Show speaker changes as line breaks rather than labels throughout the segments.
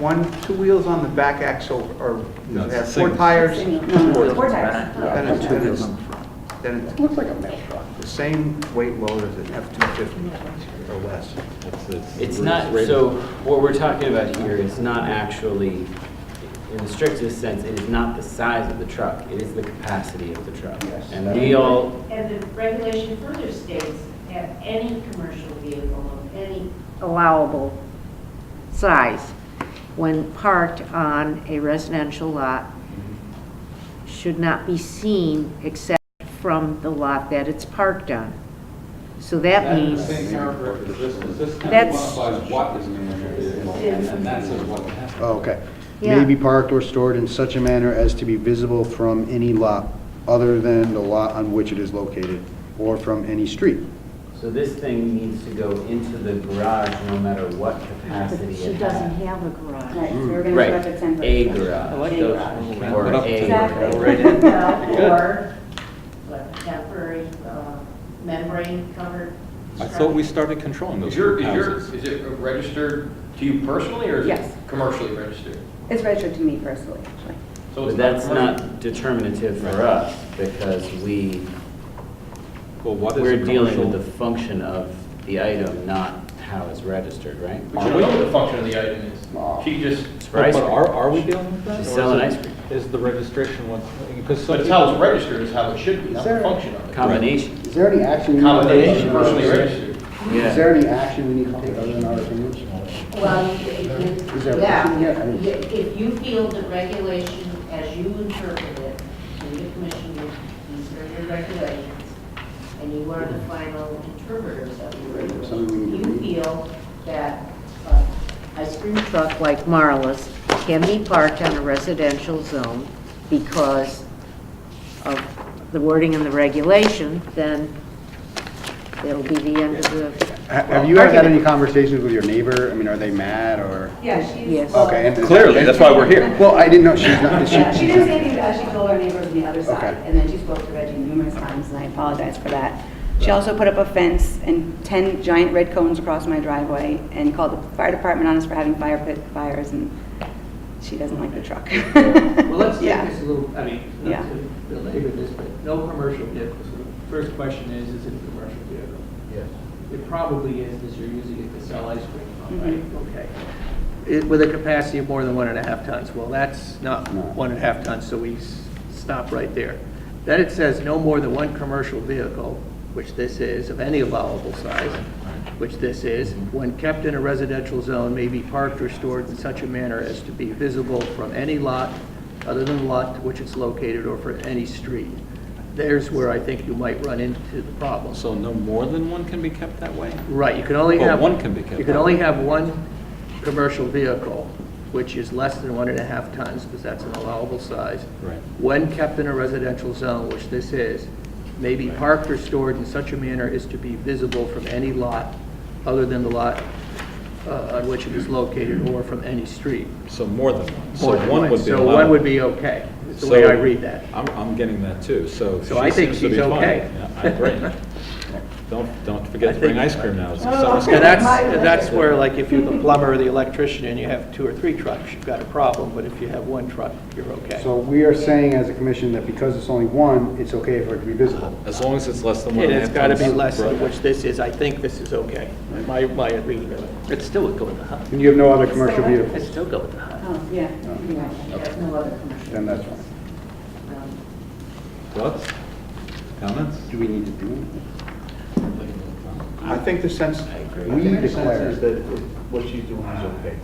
One, two wheels on the back axle or,
No,
does it
it's
have four
single.
tires?
No, Four tires.
Then it's,
Two
then
wheels
it's,
on the front.
then it's
Looks like a mail truck.
the same weight load as an F-250 or less.
That's- that's the
It's
roof
not,
rated.
so what we're talking about here is not actually, in the strictest sense, it is not the size of the truck, it is the capacity of the truck.
Yes.
And we all,
And the regulation further states that any commercial vehicle of any
allowable size when parked on a residential lot should not be seen except from the lot that it's parked on. So that
That in
means,
the same paragraph as this, is this kind of
That's-
quantifies what is an commercial vehicle, and and that says what it has to be.
Oh, Okay.
Yeah.
May be parked or stored in such a manner as to be visible from any lot other than the lot on which it is located, or from any street.
so this thing needs to go into the garage no matter what capacity
she
it
doesn't
has.
have a garage.
Right, so we're gonna go
Right,
up to ten.
a garage.
I like
A
those
garage.
little
Or
round up
a-
to-
Exactly.
Right in. Good.
or what, temporary uh, membrane covered.
I thought we started controlling those
Is your,
houses.
is your, is it registered to you personally or is
Yes.
it commercially registered?
It's registered to me personally, actually.
So it's
But that's
commercial?
not determinative for us because we,
Well, what is a
we're dealing
commercial-
with the function of the item, not how it's registered, right?
We should know what the function of the item is. She just,
It's for
But
ice
but
cream.
are, are we dealing with that?
She's
or is
selling
it-
ice cream.
Is the registration what, because. some
but it's how
people-
it's registered is how it should be, not the
Sir.
function of it.
Combination,
Is there any action? we need to take
Combination,
other than-
personally registered.
Is
yeah.
there any action we need to take other than our opinions?
Well, you- if
Is
you-
there a
yeah,
question yet? I didn't-
You- if you feel the regulation as you interpret it, and the commission, these are your regulations, and you are the final interpreters of your
Something we need
regulations,
to
you feel that uh, ice cream
Truck like Marla's can be parked on a residential zone because of the wording in the regulation, then it'll be the end of the
Ha- Have you ever had any conversations with your neighbor? I mean, are they mad or?
Yeah, she's.
Yes.
well,
Okay, and does-
Clearly, that's why we're here.
Well, I didn't know she's not, she,
Yeah, she didn't say anything, but she told her neighbors on the other side,
Okay.
and then she spoke to Reggie numerous times, and I apologize for that. She also put up a fence and 10 giant red cones across my driveway, and called the fire department on us for having fire pit fires, and she doesn't like the truck.
Well, let's
Yeah.
take this a little, I mean,
Yeah.
not to belabor this, but no commercial vehicles. So the First question is, is it a commercial vehicle?
Yes.
It probably is, because you're using it to sell ice cream, right?
Mhm.
Okay. It- With a capacity of more than one and a half tons, well, that's not
No.
one and a half tons, so we s- stop right there. Then it says no more than one commercial vehicle, which this is, of any allowable size, which this is, when kept in a residential zone, may be parked or stored in such a manner as to be visible from any lot other than the lot to which it's located or from any street. There's where I think you might run into the problem.
So no more than one can be kept that way?
Right, you can only
Well,
have.
one can be kept.
You can only have one commercial vehicle, which is less than one and a half tons, because that's an allowable size.
Right.
When kept in a residential zone, which this is, may be parked or stored in such a manner as to be visible from any lot other than the lot uh, on which it is located or from any street.
So more than one.
More
So
than
one would be
So one would
allowed.
be okay, is the way I
So
read that.
I'm, I'm getting that too, so.
So
she
I think
seems to be
she's
fine.
okay.
Yeah, I agree. Don't, don't forget
I
to bring
think- Oh.
ice cream now.
And that's, and that's where, like, if you're the plumber or the electrician and you have two or three trucks, you've got a problem, but if you have one truck, you're okay.
so we are saying as a commission that because it's only one, it's okay for it to be visible.
As long as it's less than one
And
and a half.
it's got to be
tons.
less than
Right.
which this is, I think this is okay. My, my reading of it. It's still a go in the hut.
And you have no other commercial
It's
vehicles?
still go in the hut.
Oh, yeah. you're right.
There's no other commercial.
Then that's fine.
um,
Thoughts? Comments?
Do we need to do anything?
I think the sense, I
We
think the sense
declare.
is that it- what she's doing is okay.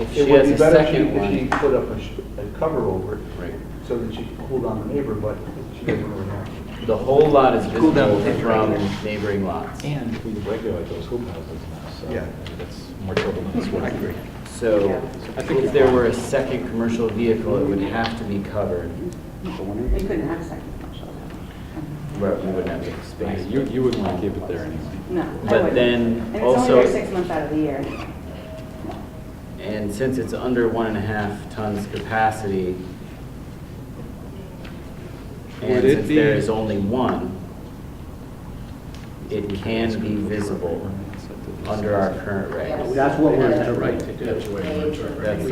If
It
she
would
has
be
a
better if she-
second
if she
one,
put up a sh- a cover over it
Right.
so that she could hold on the neighbor, but she doesn't really have to.
the whole lot is
Cool down
visible
the picture
from
right
neighboring lots.
And we regulate those hoop houses now, so
Yeah.
that's more trouble than it's worth. I agree.
So if there were a second commercial vehicle, it would have to be covered,
We couldn't have a second commercial.
where we wouldn't have the space.
You, you wouldn't want to keep it there anyway.
No, I wouldn't.
But then
And it's only
also-
there six months out of the year.
And since it's under one and a half tons capacity,
Would
and
it
since there
be-
is only one, it can be visible
under our current regs.
Yes.
That's what we're
They have the right to do.
That's what we're interpreting.